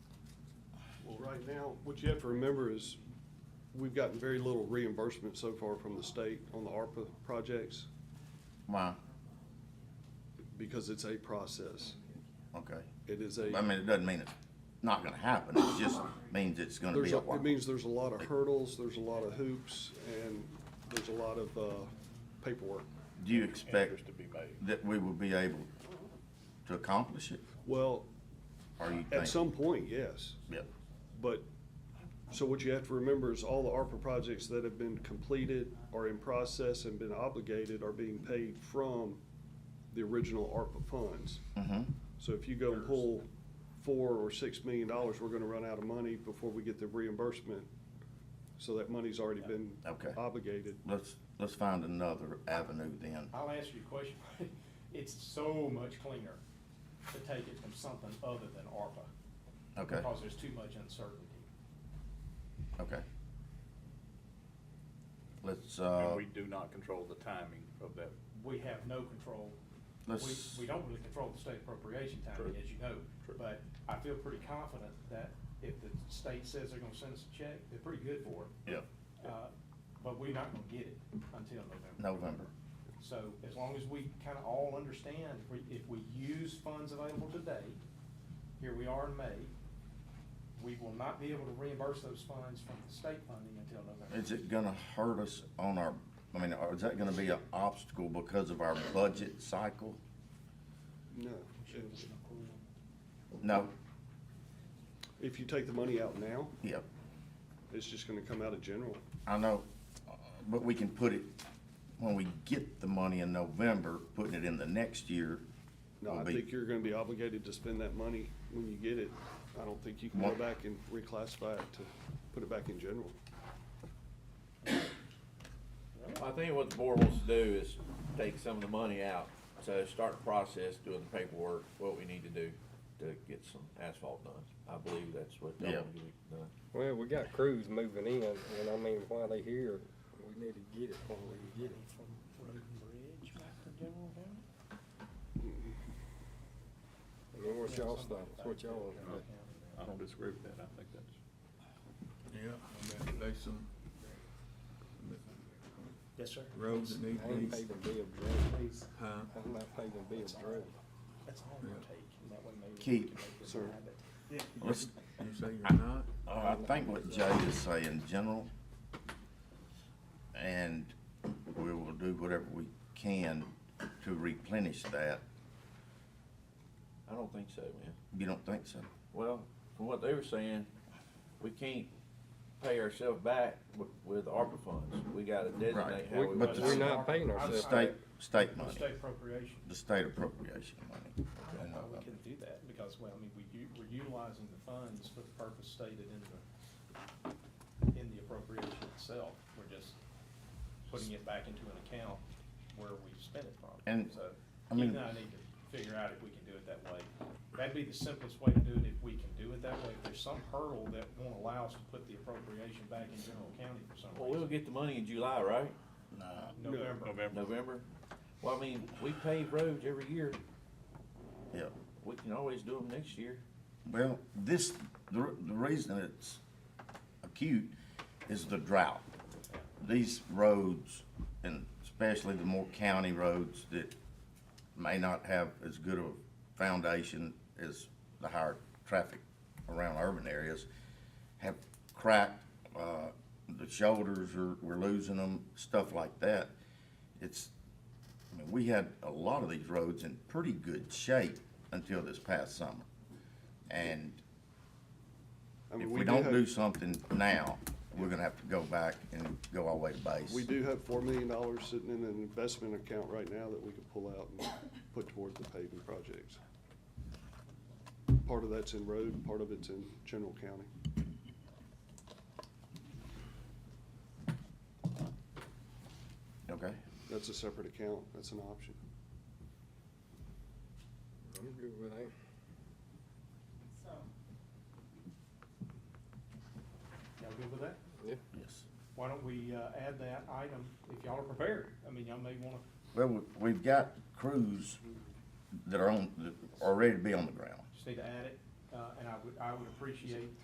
Right now, what you have to remember is, we've gotten very little reimbursement so far from the state on the ARPA projects, Wow, because it's a process. okay. It is a, I mean, it doesn't mean it's not gonna happen, it just means it's gonna there's be a, a it while. means there's a lot of hurdles, there's a lot of hoops, and there's a lot of, uh, paperwork. Do you expect Interest to be made. that we will be able to accomplish it, Well, or you at think? some point, yes, Yeah, but, so what you have to remember is all the ARPA projects that have been completed, are in process and been obligated, are being paid from the original ARPA funds. mm-hmm, So if you go and pull four or six million dollars, we're gonna run out of money before we get the reimbursement. So that money's already been Okay. obligated. let's, let's find another avenue then. I'll ask you a question. It's so much cleaner to take it from something other than ARPA. Okay. Because there's too much uncertainty. Okay. Let's, And uh, we do not control the timing of that. We have no control. We, let's, we don't really control the state appropriation timing, True. as you know. True. But I feel pretty confident that if the state says they're gonna send us a check, they're pretty good for it. yeah, Uh, But we're not gonna get it until November. November. So as long as we kind of all understand, if we, if we use funds available today, here we are in May, we will not be able to reimburse those funds from the state funding until November. Is it gonna hurt us on our, I mean, or is that gonna be an obstacle because of our budget cycle? No. If- No, If you take the money out now, yeah, it's just gonna come out of general. I know, uh, but we can put it, when we get the money in November, putting it in the next year. No, I will be- think you're gonna be obligated to spend that money when you get it. I don't think you can go What? back and reclassify it to put it back in general. I think what the board wants to do is take some of the money out, so start the process, doing the paperwork, what we need to do to get some asphalt done. I believe that's what they want to get done. Well, we got crews moving in, and I mean, while they here, we need to get it while we get it. I mean, what's y'all's thoughts, what y'all want to do? I don't disagree with that. I think that's. Yeah, I mean, there's some Yes, sir. roads that need I to be, ain't paid a bill of drugs, huh? I'm not paying a bill of drugs. That's all we'll Yeah. take, and that way maybe. Keith. can Sir. Let's, You say you're not? I think what Jay is saying, general, and we will do whatever we can to replenish that. I don't think so, man. You don't think so? Well, from what they were saying, we can't pay ourselves back with, with ARPA funds. We gotta designate how We- we But want we're to. not paying The ourselves. state, state The money, state appropriation, the state appropriation money. I don't know, we can do that, because, well, I mean, we, u- we're utilizing the funds for the purpose stated in the, in the appropriation itself. We're just putting it back into an account where we spent it from. And, So, I You mean- and I need to figure out if we can do it that way. That'd be the simplest way to do it, if we can do it that way. If there's some hurdle that won't allow us to put the appropriation back in general county for some Well, we'll reason. get the money in July, right? November, November. November? Well, I mean, we pave roads every year. Yeah, We can always do them next year. well, this, the, r- the reason it's acute is the drought. These roads, and especially the more county roads that may not have as good of a foundation as the higher traffic around urban areas, have cracked, uh, the shoulders are, we're losing them, stuff like that. It's, I mean, we had a lot of these roads in pretty good shape until this past summer. And I mean, if we do don't have- do something now, we're gonna have to go back and go our way to base. We do have four million dollars sitting in an investment account right now that we could pull out and put towards the paving projects. Part of that's in road, part of it's in general county. Okay, That's a separate account, that's an option. I'm good with that. y'all good with that? yes. Why don't we, uh, add that item, if y'all are prepared? I mean, y'all may wanna Well, we- we've got crews that are on, that are ready to be on the ground. just need to add it, uh, and I would, I would appreciate